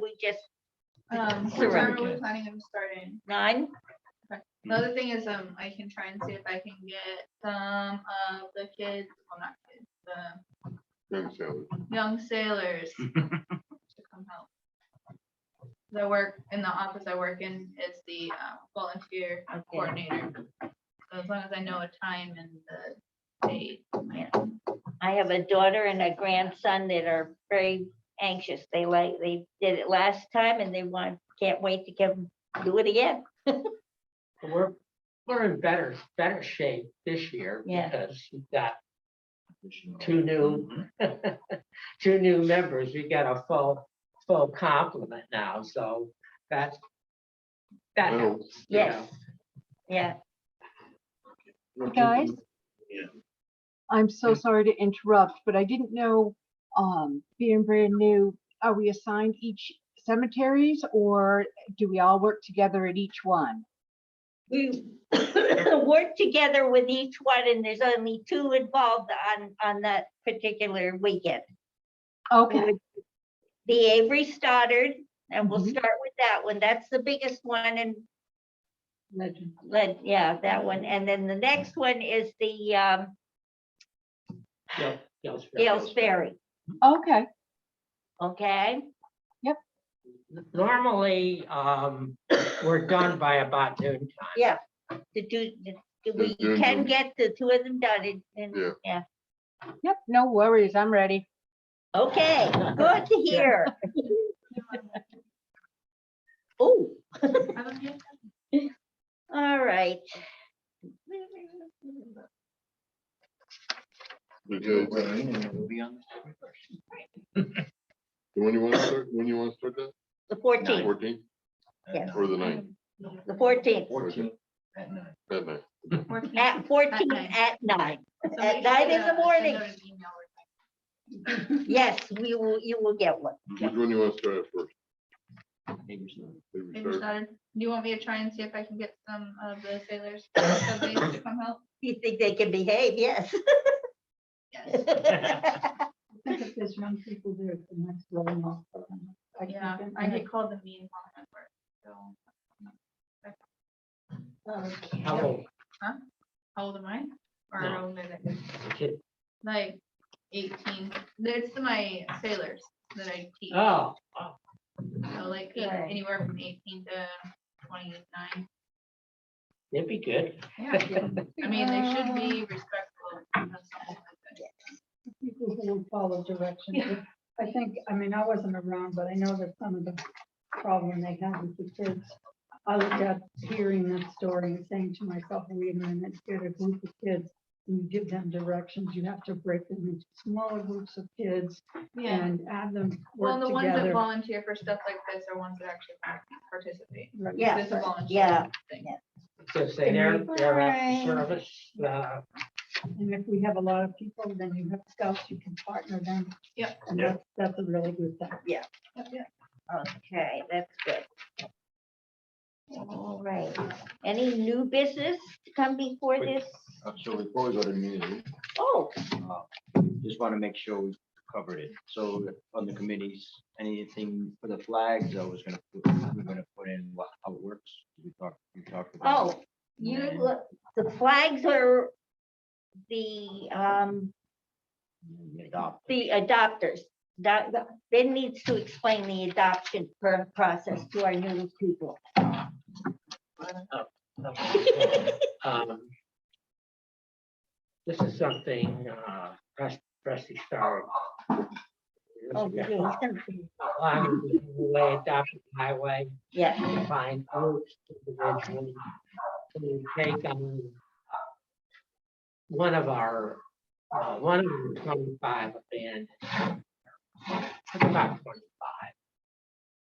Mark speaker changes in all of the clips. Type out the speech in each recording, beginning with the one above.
Speaker 1: we just
Speaker 2: Um,
Speaker 3: Sure.
Speaker 2: what time are we planning on starting?
Speaker 1: nine? Mm-hmm.
Speaker 2: The other thing is, um, I can try and see if I can get some of the kids, well, not kids, the
Speaker 3: Young sailors.
Speaker 2: young sailors. To come help. The work in the office I work in is the uh, volunteer
Speaker 1: Okay,
Speaker 2: coordinator. So as long as I know a time and the date. I can-
Speaker 1: I have a daughter and a grandson that are very anxious. They like, they did it last time and they want, can't wait to come do it again.
Speaker 4: We're, we're in better, better shape this year
Speaker 1: Yeah.
Speaker 4: because we've got two new, two new members. We got a full, full complement now, so that's, that
Speaker 3: Well,
Speaker 4: helps. you
Speaker 1: Yes,
Speaker 4: know.
Speaker 1: yeah.
Speaker 5: Guys?
Speaker 3: Yeah.
Speaker 5: I'm so sorry to interrupt, but I didn't know, um, being brand new, are we assigned each cemeteries or do we all work together at each one?
Speaker 1: We work together with each one and there's only two involved on, on that particular weekend.
Speaker 5: Okay,
Speaker 1: The Avery Stoddard, and we'll
Speaker 5: Mhm.
Speaker 1: start with that one. That's the biggest one and
Speaker 4: Legend.
Speaker 1: But yeah, that one. And then the next one is the um,
Speaker 4: Gil- Gil's Ferry.
Speaker 1: Gales Ferry,
Speaker 5: okay,
Speaker 1: okay?
Speaker 4: Normally, um, we're done by about noon time.
Speaker 1: Yeah. To do, the- the- we
Speaker 3: Yeah,
Speaker 1: can
Speaker 3: and-
Speaker 1: get the two of them done in- in,
Speaker 3: Yeah.
Speaker 1: yeah.
Speaker 5: yep, no worries, I'm ready.
Speaker 1: Okay, good to hear. Oh,
Speaker 2: I'm okay.
Speaker 1: all right.
Speaker 3: Okay, When you want to start, when you want to start that?
Speaker 1: The fourteenth,
Speaker 3: Fourteen
Speaker 1: yes,
Speaker 3: or the ninth?
Speaker 1: the fourteenth,
Speaker 3: Fourteen. That night.
Speaker 2: Working.
Speaker 1: at fourteen
Speaker 2: nine.
Speaker 1: at nine.
Speaker 2: Somebody
Speaker 1: nine
Speaker 2: should,
Speaker 1: in the
Speaker 2: uh, send
Speaker 1: morning.
Speaker 2: out an email or
Speaker 1: Yes, we will, you will get one.
Speaker 3: Which one you want to start at first?
Speaker 2: something.
Speaker 3: Maybe
Speaker 2: Maybe
Speaker 3: start-
Speaker 2: started. Do you want me to try and see if I can get some of the sailors some days to come help?
Speaker 1: You think they can behave, yes.
Speaker 2: Yes.
Speaker 6: There's young people there, the next level. now. I
Speaker 2: Yeah,
Speaker 6: can't
Speaker 2: I
Speaker 6: imagine.
Speaker 2: get called the mean one at work, so.
Speaker 4: How
Speaker 1: Okay.
Speaker 4: old?
Speaker 2: How old am I? Or
Speaker 4: No.
Speaker 2: how old are they?
Speaker 4: Kid-
Speaker 2: Like eighteen, that's my sailors that I teach,
Speaker 4: Oh,
Speaker 2: so like eight-
Speaker 1: Right.
Speaker 2: anywhere from eighteen to twenty-nine.
Speaker 4: it'd be good.
Speaker 2: Yeah, I mean, they should be respectful of something like that.
Speaker 6: People who will follow directions.
Speaker 2: Yeah.
Speaker 6: I think, I mean, I wasn't around, but I know that some of the problem they have with the kids. I looked at hearing that story and saying to myself, wait a minute, get a group of kids. and You give them directions, you have to break them into smaller groups of kids
Speaker 2: Yeah,
Speaker 6: and have them
Speaker 2: well,
Speaker 6: work
Speaker 2: the ones that
Speaker 6: together.
Speaker 2: volunteer for stuff like this are ones that actually participate.
Speaker 6: Right.
Speaker 1: Yeah,
Speaker 2: This is volunteer
Speaker 1: yeah,
Speaker 2: thing.
Speaker 4: Just say they're, they're at service, uh,
Speaker 6: And if we have a lot of people, then you have scouts, you can partner them.
Speaker 2: Yep.
Speaker 6: And
Speaker 4: Yeah.
Speaker 6: that's, that's a really good thing.
Speaker 2: Yep, yep.
Speaker 1: Okay, that's good. All right, any new business to come before
Speaker 7: Wait.
Speaker 1: this?
Speaker 7: Uh, So before we go to community,
Speaker 1: Oh,
Speaker 7: uh, just want to make sure we covered it. So on the committees, anything for the flags, I was gonna, put- we're gonna put in what, how it works. We talked, we talked about. it.
Speaker 1: oh, you,
Speaker 7: And
Speaker 1: look- the flags are the, um,
Speaker 7: then we adopt.
Speaker 1: the adopters. That, Ben needs to explain the adoption per- process to our new people.
Speaker 4: Um, This is something, uh, Press- Presti started.
Speaker 1: Oh,
Speaker 4: years ago.
Speaker 1: yeah.
Speaker 4: Along with the Way adoption highway,
Speaker 1: Yeah,
Speaker 4: to find groups, individuals, to take on one of our, uh, one of the twenty-five abandoned. About twenty-five.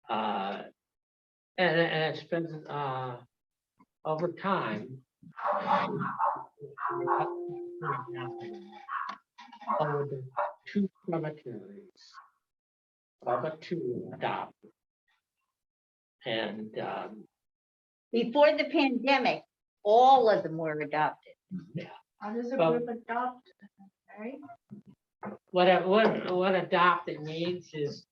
Speaker 4: Uh, and, and it's been, uh, over time. Over the two cemeteries. Over two adopt. And, um,
Speaker 1: before the pandemic, all of them were adopted.
Speaker 2: How does a
Speaker 4: Well-
Speaker 2: group adopt? Right?
Speaker 4: what, a- what, what adopted means is